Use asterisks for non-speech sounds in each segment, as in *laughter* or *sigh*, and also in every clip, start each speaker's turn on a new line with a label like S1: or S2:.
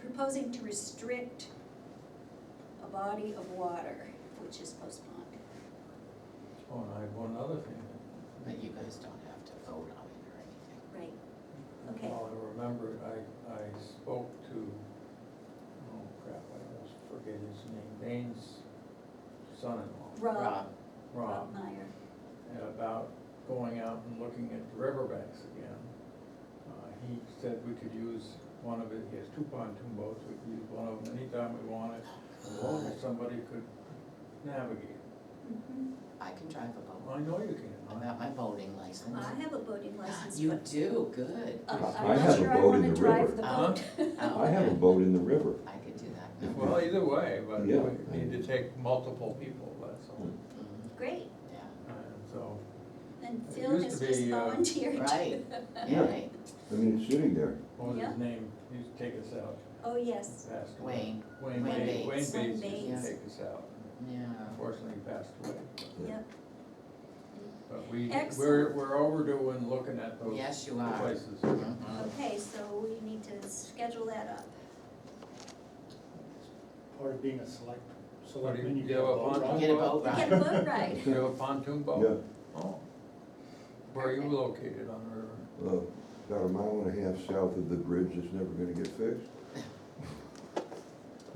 S1: proposing to restrict a body of water, which is Post Pond.
S2: Oh, and I have one other thing.
S3: But you guys don't have to vote on it or anything.
S1: Right. Okay.
S2: While I remember, it, I, I spoke to, oh crap, I almost forget his name, Dane's son-in-law,
S1: Rob,
S2: Rob,
S1: Rob Meyer,
S2: about going out and looking at the riverbanks again. Uh, He said we could use one of it, he has two pontoon boats, we could use one of them anytime we wanted, as long as somebody could navigate.
S1: Mhm.
S4: Mm-hmm.
S3: I can drive a boat.
S2: I know you
S3: I've
S2: can.
S3: got my boating license.
S1: I have a boating license,
S3: You
S1: but
S3: do, good.
S1: uh,
S4: I
S1: I'm not
S4: have a
S1: sure I
S4: boat in
S1: wanna
S4: the
S1: drive
S4: river.
S1: the
S3: Huh?
S1: boat.
S3: Oh,
S4: I have a
S3: yeah.
S4: boat in the river.
S3: I could do that.
S4: Yeah.
S2: Well, either way, but we
S4: Yeah.
S2: need to take multiple people, that's all.
S1: *laughs*
S3: Mhm,
S1: Great,
S3: Yeah,
S2: And so,
S1: and
S2: It
S1: Phil
S2: used
S1: has
S2: to
S1: just
S2: be, uh,
S1: volunteered.
S3: right, yeah,
S4: Yeah.
S3: right.
S4: I mean, it's sitting there.
S2: what was
S1: Yeah.
S2: his name, he used to take us out,
S1: *laughs* Oh, yes,
S2: passed away.
S3: Wayne,
S2: Wayne
S3: Wayne
S2: Bates, Wayne
S3: Bates.
S2: Bates used
S1: Wayne
S2: to
S3: Bates.
S2: take us out,
S3: yeah.
S2: unfortunately he passed away.
S1: yep,
S2: But we, we're,
S1: Excellent.
S2: we're overdue in looking at
S5: Oh.
S2: those
S3: Yes, you are.
S2: places.
S3: Mhm.
S1: okay, so we need to schedule that up.
S5: part of being a select,
S2: What do you-
S5: selectman, you
S2: do
S5: get a vote,
S2: pontoon
S5: right?
S3: Get a boat
S1: Get a
S3: ride. *laughs*
S1: boat ride,
S2: You have a pontoon boat? Yeah. Oh. Where are you
S1: Perfect.
S2: located on the river?
S4: Uh, About a mile and a half south of the bridge that's never gonna get fixed.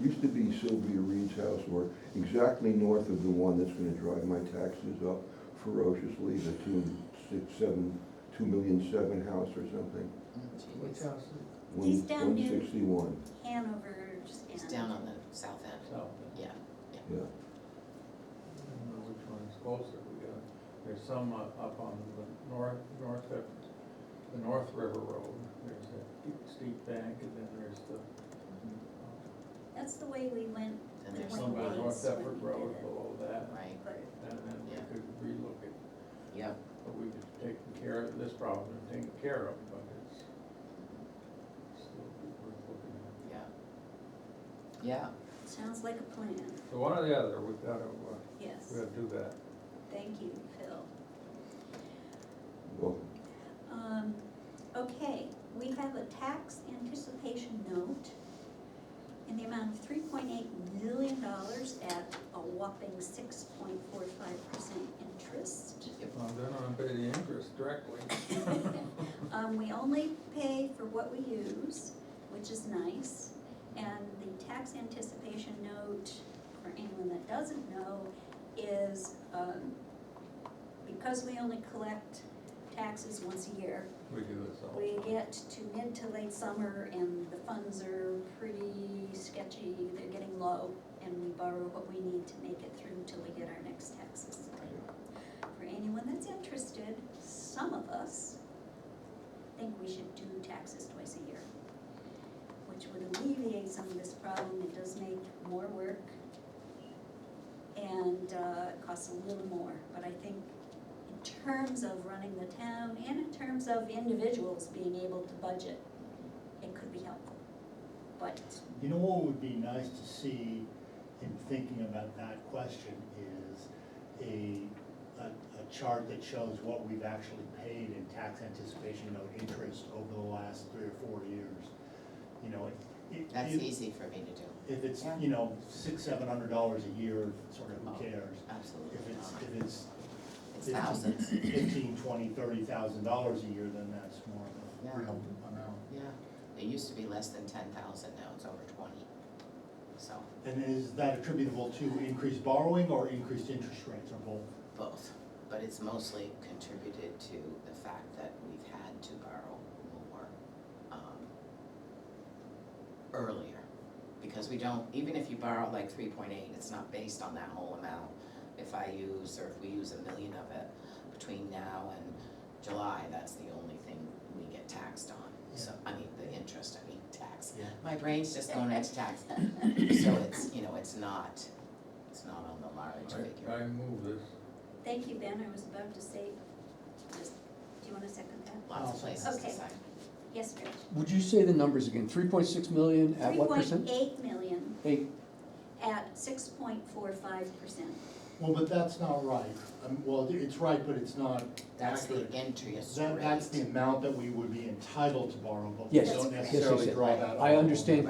S4: Used to be Sylvia Reed's house, or exactly north of the one that's gonna drive my taxes up ferociously, the two, six, seven, two million seven house or something.
S3: Mm, geez.
S2: Which house is
S4: One-
S1: He's down near-
S4: 161,
S1: Hanover, just
S3: It's down on the south end,
S2: south?
S3: yeah.
S4: yeah.
S2: I don't know which one's closer, we got, there's some uh, up on the north, north of, the North River Road, there's a steep bank, and then there's the uh,
S1: That's the way we went,
S3: Mm-hmm. Then
S1: There's
S3: there's
S1: one
S2: One by
S1: Wayne's
S2: North
S3: Wayne's,
S2: Effort
S1: when we
S2: Road
S1: did it.
S2: below that,
S3: right,
S1: but
S2: and then we
S3: Yeah.
S2: could relook at,
S3: yep.
S2: but we've taken care of this problem and taken care of, but it's still worth looking at.
S3: Yeah. Yeah,
S1: sounds like a plan,
S2: So one or the other, we've gotta, uh,
S1: yes,
S2: we gotta do that.
S1: thank you, Phil.
S4: Well,
S1: Um, okay, we have a tax anticipation note in the amount of three point eight million dollars at a whopping six point four five percent interest.
S3: yep,
S2: Well, they're not gonna pay the interest directly.
S1: Um, we only pay for what we use, which is nice. And the tax anticipation note, for anyone that doesn't know, is, um, because we only collect taxes once a year,
S2: We do this all.
S1: We get to mid to late summer and the funds are pretty sketchy, they're getting low, and we borrow what we need to make it through till we get our next taxes. For anyone that's interested, some of us think we should do taxes twice a year, which would alleviate some of this problem, it does make more work and uh, it costs a little more, but I think in terms of running the town and in terms of individuals being able to budget, it could be helpful. But,
S5: You know what would be nice to see in thinking about that question is a, a, a chart that shows what we've actually paid in tax anticipation note interest over the last three or four years. You know, it- it.
S3: that's
S5: it-
S3: easy for me to do,
S5: If it's,
S3: Yeah.
S5: you know, six, seven hundred dollars a year, sort of,
S3: Oh.
S5: who cares?
S3: absolutely
S5: If it's,
S3: not.
S5: if it's
S3: It's thousands,
S5: fifteen, twenty, thirty thousand dollars a year, then that's more of
S3: Yeah.
S5: a real amount.
S3: yeah. It used to be less than ten thousand, now it's over twenty, so
S5: And is that attributable to increased borrowing or increased interest rates or both?
S3: both. But it's mostly contributed to the fact that we've had to borrow more, um, earlier. Because we don't, even if you borrow like three point eight, it's not based on that whole amount. If I use, or if we use a million of it between now and July, that's the only thing we get taxed on. So, I mean, the interest, I mean, tax.
S5: Yeah.
S3: My brain's just going into tax, so it's, you know, it's not, it's not on the large
S2: I,
S3: figure.
S2: I move this.
S1: thank you, Ben, I was about to say, just, do you wanna second that?
S3: Lots of places to
S1: Okay.
S3: sign.
S1: Yes, Rich?
S6: Would you say the numbers again? Three point six million at what percent?
S1: Three point eight million
S6: Eight,
S1: at six point four five percent.
S5: Well, but that's not right. Um, well, it's right, but it's not
S3: That's the
S5: accurate.
S3: interest
S5: That, that's the
S3: rate.
S5: amount that we would be entitled to borrow, but we
S6: Yes.
S5: don't
S1: Yes, yes,
S5: necessarily
S6: yes.
S5: draw that.
S6: I
S5: out.
S6: understand